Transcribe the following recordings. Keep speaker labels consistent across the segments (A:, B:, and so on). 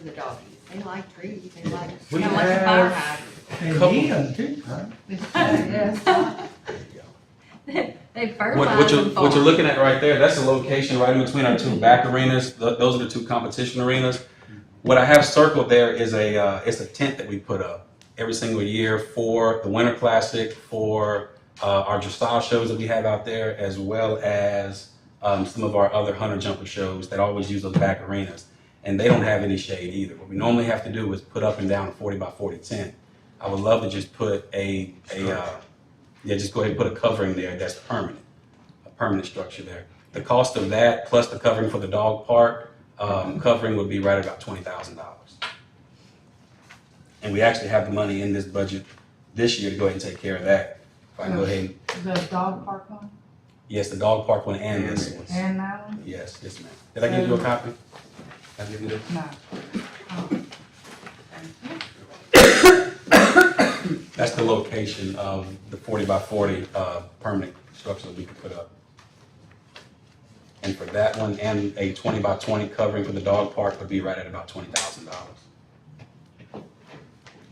A: for the doggies. They like trees, they like,
B: We
A: kinda like a fire
B: have-
A: hydrant.
B: Couple.
C: And Ian too, right?
A: Yes.
D: They
B: What, what
D: fertilize
B: you're,
D: them for
B: what you're
D: us.
B: looking at right there, that's the location right in between our two back arenas. Th- Those are the two competition arenas. What I have circled there is a, uh, it's a tent that we put up every single year for the Winter Classic, for, uh, our dressage shows that we have out there, as well as, um, some of our other hunter jumper shows that always use those back arenas. And they don't have any shade either. What we normally have to do is put up and down a forty by forty tent. I would love to just put a, a, uh, yeah, just go ahead and put a covering there that's permanent a permanent structure there. The cost of that, plus the covering for the dog park, um, covering would be right about twenty thousand dollars. And we actually have the money in this budget this year to go ahead and take care of that. If I can go ahead, and-
E: The dog park one
B: yes, the dog park one and this one.
E: and that one?
B: Yes, yes, ma'am. Did I give you a copy? I give you the,
E: No. Oh,
B: that's the location of the forty by forty, uh, permanent structure that we could put up. And for that one, and a twenty by twenty covering for the dog park would be right at about twenty thousand dollars.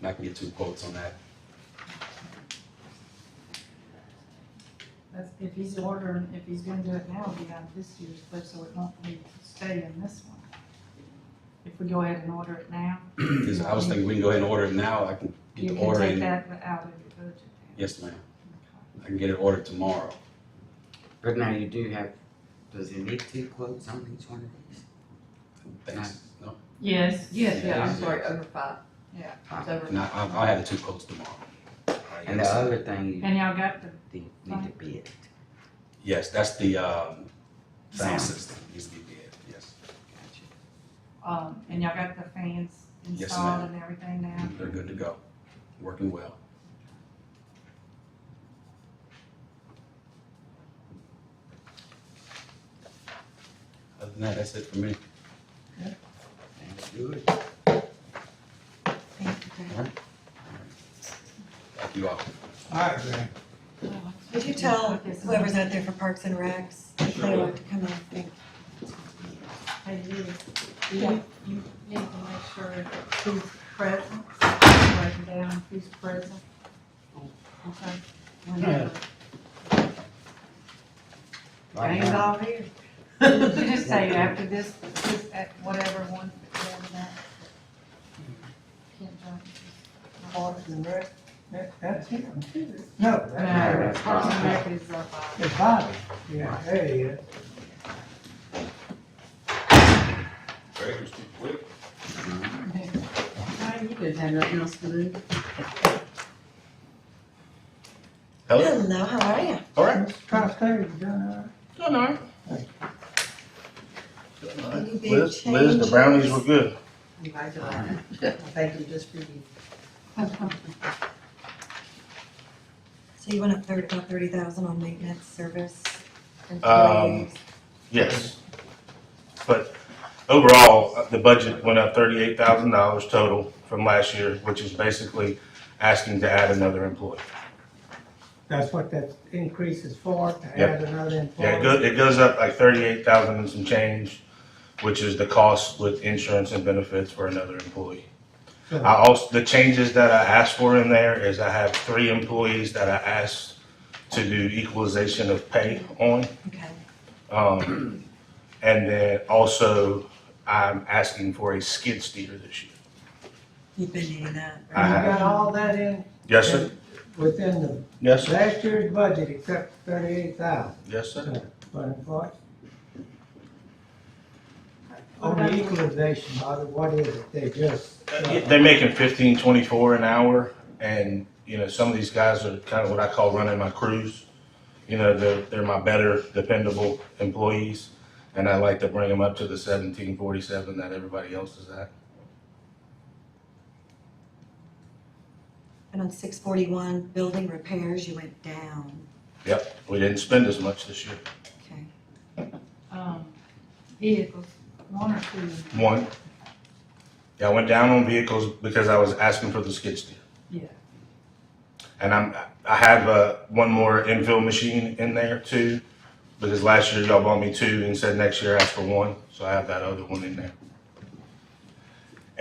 B: And I can get two quotes on that.
E: that's- If he's ordering, if he's gonna do it now, it'll be out of this year's budget, so it won't be stay in this one. If we go ahead and order it now,
B: Because I was thinking we can go ahead and order it now, I can get
E: you
B: the
E: can
B: order
E: take
B: in.
E: that out of your budget. then.
B: Yes, ma'am.
E: Okay.
B: I can get it ordered tomorrow.
F: But now you do have, does it need two quotes on each one of these?
B: Thanks. No,
E: Yes.
A: Yes, yeah, I'm sorry, over five.
E: Yeah.
A: It's over.
B: and I, I'll, I'll have the two quotes tomorrow.
F: And the other thing, you
E: And y'all got the,
F: need need to bid.
B: Yes, that's the, um, sound
F: Sound.
B: system, needs to be bid, yes.
E: um, and y'all got the fans
B: Yes,
E: installed and everything now?
B: They're good to go, working well. Other than that, that's it for me.
F: That's good.
B: Thank you all.
C: All right, then.
G: Would you tell whoever's out there for Parks and Recs if they want to come up? Thank you.
E: Hey, you,
G: Yeah.
E: you, you need to make sure who's present, writing down who's present. Okay? Whenever.
F: Right
E: Jane's
F: now,
E: all here. You just say after this, this, at whatever one, whatever that. Can't jump.
C: Parks and Rec, that, that's him too. No,
E: No,
C: that's
F: that's
E: Parks and Rec is up, uh,
C: his body. Yeah, there he is.
D: You didn't have nothing else to do.
B: Hello?
G: Hello, how are you?
B: All right.
C: Let's try to stay, uh, you done
H: Done all right.
G: Any big
H: Liz, Liz, the brownies were good.
A: Congratulations. Thank you just for you.
G: So you went up thirty, about thirty thousand on maintenance, service,
H: Um,
G: employees?
H: Yes. But overall, uh, the budget went up thirty-eight thousand dollars total from last year, which is basically asking to add another employee.
C: That's what that increase is for, to
H: Yep.
C: add another
H: Yeah, it
C: employee.
H: goes, it goes up like thirty-eight thousand and some change, which is the cost with insurance and benefits for another employee.
C: So-
H: I also, the changes that I asked for in there is I have three employees that I asked to do equalization of pay on.
G: Okay,
H: Um, and then also, I'm asking for a skid steer this year.
G: you've been needing that,
C: You
G: right?
H: I-
C: got all that in,
H: Uh-huh. Yes, sir.
C: within the
H: Yes, sir.
C: last year's budget except thirty-eight thousand.
H: Yes, sir.
C: But employee. On the equalization, Bobby, what is it? They just.
H: Uh, They're making fifteen twenty-four an hour, and, you know, some of these guys are kind of what I call running my crews. You know, they're, they're my better dependable employees, and I like to bring them up to the seventeen forty-seven that everybody else is at.
G: And on six forty-one, building repairs, you went down,
H: Yep, we didn't spend as much this year.
G: okay.
E: um, vehicles, one or two,
H: One, yeah, I went down on vehicles because I was asking for the skid steer.
E: yeah.
H: And I'm, I have, uh, one more infill machine in there too, because last year y'all bought me two and said next year ask for one, so I have that other one in there.